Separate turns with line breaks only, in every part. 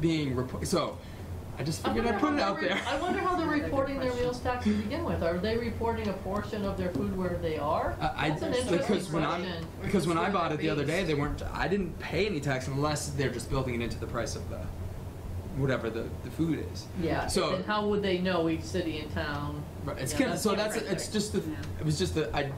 being reported. So I just figured I'd
wonder
put
how
it out
they're-
there.
I wonder how they're reporting their meals tax to begin with. Are they reporting a portion of their food where they are?
I, I
That's an
because
interesting
when I
question.
because when I
Where
bought
they're
it the other day,
based.
they weren't. I didn't pay any tax unless they're just building it into the price of the whatever the, the food is.
Yeah,
So-
and how would they know each city and town?
Right, It's
Yeah,
kind of
that's
so that's
different,
it's just the
Yeah.
it was just the I it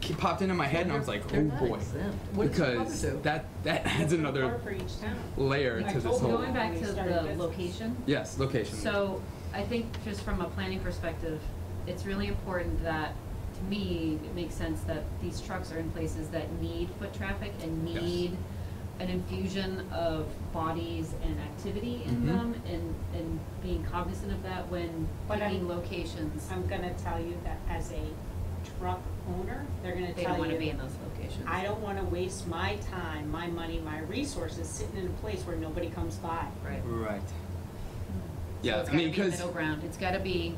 ke- popped into my head and I was like
They're
oh
not
boy
exempt. What does your mother
because
do?
that that adds
Or
another
for each town.
layer
I
to this
told you.
whole
When
oh, Going back
we
to
started
the
business.
location,
yes location.
so I think just from a planning perspective, it's really important that, to me, it makes sense that these trucks are in places that need foot traffic and
Yes.
need an infusion of bodies and activity in
Mhm.
them and, and being cognizant of that when
But I'm-
picking locations.
I'm gonna tell you that as a truck owner, they're gonna
They don't
tell
wanna be
you,
in those locations.
I don't wanna waste my time, my money, my resources sitting in a place where nobody comes by.
Right.
right
So
yeah
it's
I
gotta
mean
be
because
middle ground, it's gotta be,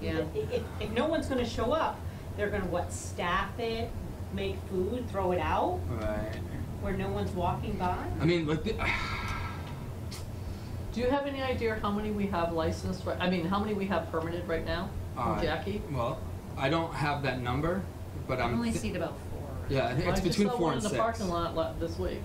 yeah.
If, if, if no one's gonna show up, they're gonna what, staff it, make food, throw it out,
right
where no one's walking by?
I mean like the,
Do you have any idea how many we have licensed, right- I mean, how many we have permitted right now?
uh,
From Jackie?
well I don't have that number but
I've
I'm
only
thi-
seen about four.
yeah I think it's between four
I
and
just
six
saw one in the parking lot la- this week.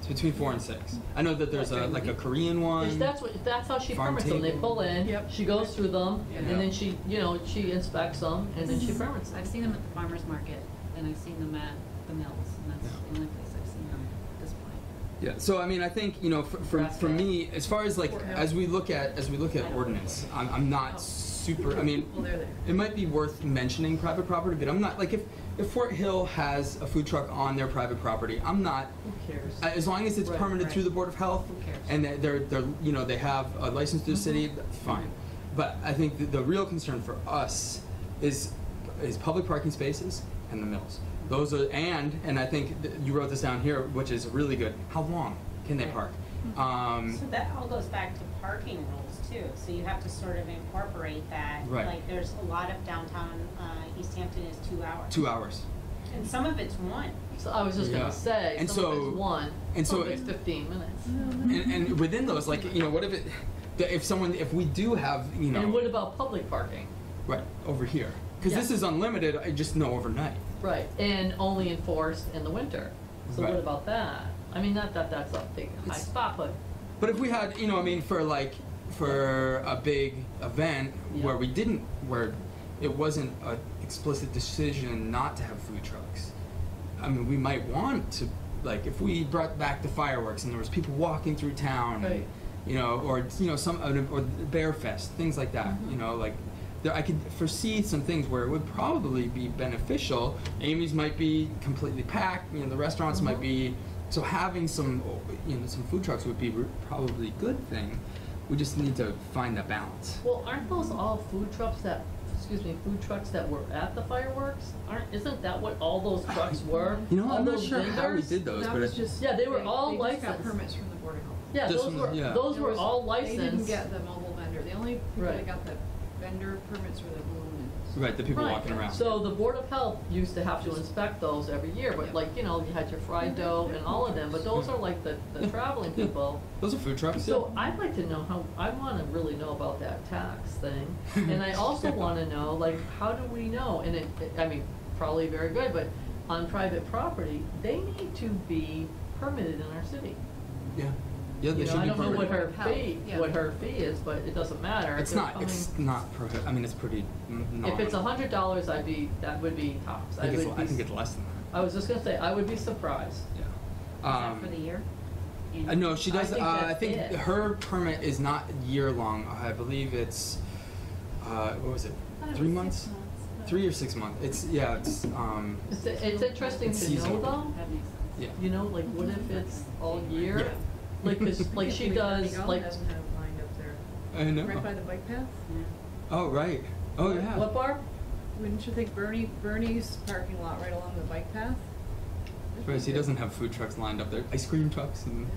it's between four and six I know that there's
Like
a
during the
like a
week.
Korean one
If that's what, if that's how she
Farm
permits them, they
table.
pull in,
Yep.
she goes through them,
Yeah.
and then she, you know, she inspects them, and then she permits them.
I've seen them at the farmer's market, and I've seen them at the mills, and that's
Yeah.
the only place I've seen them at this point.
Yeah, so I mean, I think, you know, for, for,
Grass
for
cut.
me, as far as like,
Or-
as we look at, as we look at ordinance, I'm, I'm not super, I mean,
Oh. Well, they're there.
it might be worth mentioning private property, but I'm not, like, if, if Fort Hill has a food truck on their private property, I'm not,
Who cares?
uh, as long as it's
Right,
permitted
right.
through the Board of Health,
Who cares?
and that they're, they're, you know, they have a license
Mm-hmm.
through the city, fine. But I think the, the real concern for us is, is public parking spaces and the mills. Those are, and, and I think that you wrote this down here, which is really good, how long can they park?
Mm-hmm.
Um,
So that all goes back to parking rules too, so you have to sort of incorporate that.
Right.
Like, there's a lot of downtown, uh, East Hampton is two hours.
two hours.
And some of it's one.
So I was just
Yeah.
gonna say,
And
some of
so-
it's one,
and
some
so
of it's
it-
fifteen minutes.
And, and within those, like, you know, what if it, the- if someone, if we do have, you
And what
know,
about public parking?
right, over here. Cause this
Yeah.
is unlimited, I just know overnight.
Right, and only enforced in the winter. So
Right.
what about that? I mean, not that that's a big high
It's-
spot, but
But if we had, you know, I mean, for like, for a big event where
Yeah.
we didn't, where it wasn't a explicit decision not to have food trucks, I mean, we might want to, like, if we brought back the fireworks and there was people walking through town, and,
Right.
you know, or you know, some or Bear Fest, things like that,
Mm-hmm.
you know, like. There, I could foresee some things where it would probably be beneficial. Amy's might be completely packed. You know, the restaurants might be
Mhm.
so having some you know some food trucks would be re- probably a good thing. We just need to find that balance.
Well, aren't those all food trucks that, excuse me, food trucks that were at the fireworks? Aren't, isn't that what all those trucks were?
You know,
All
I'm not
those
sure how we
vendors?
did those,
That
but
was
it,
just.
Yeah, they were all
They just
licensed.
got permits from the Board of Health.
Yeah,
This
those
one,
were,
yeah.
those
There
were
was-
all
They didn't
licensed.
get the mobile vendor. The only people
Right.
that got the vendor permits were the balloon.
right the people
Right.
walking around.
So the Board of Health used to have to inspect those every year, but
Yeah.
like, you know, you had your fried
Mhm.
dough and all of them, but those are like the, the
Yeah.
traveling
Yeah.
people.
those are food trucks.
So I'd like to know how, I wanna really know about that tax thing, and I also wanna know, like, how do we know, and it, it- I mean, probably very good, but on private property, they need to be permitted in our city.
yeah, yeah, yeah they
You know,
should be
I don't know what
permitted.
her
How?
fee,
Yeah.
what her fee is, but it doesn't matter.
It's
They're
not. It's
coming-
not prohi- I mean, it's pretty. N-
If it's a
nominal.
hundred dollars, I'd be, that would be tops.
I think, it's,
would
I
be-
think it's less than that.
I was just gonna say, I would be surprised.
Is
Yeah.
that
Um,
for the year?
uh, no, she
I
does.
think
uh, I
that's
think
it.
her permit is not year long. I believe it's. Uh, what was it? Three months? Three or six months. It's yeah. It's um.
It's, it's interesting
It's
to know
seasonal.
though,
That makes sense.
Yeah.
you know, like, what if it's all year?
Yeah.
Like, 'cause- like she does, like,
doesn't have a line up there.
I know.
Right by the bike path?
Mm-hmm.
Oh right. Oh yeah.
what bar?
Wouldn't you think Bernie, Bernie's parking lot right along the bike path?
Whereas he doesn't have food trucks lined up there. Ice cream trucks and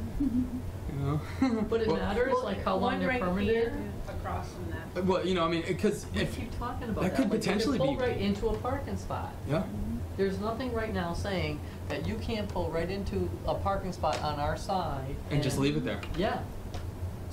you know.
Would it
well,
matters like how long
One
they're
right
permitted?
here Across from that.
Well, you know, I mean, because
We
if
keep talking about
that
that.
could
like, you
potentially
pull
be-
right into a parking spot.
yeah,
There's nothing right now saying that you can't pull right into a parking spot on our side.
and just leave it there.
Yeah,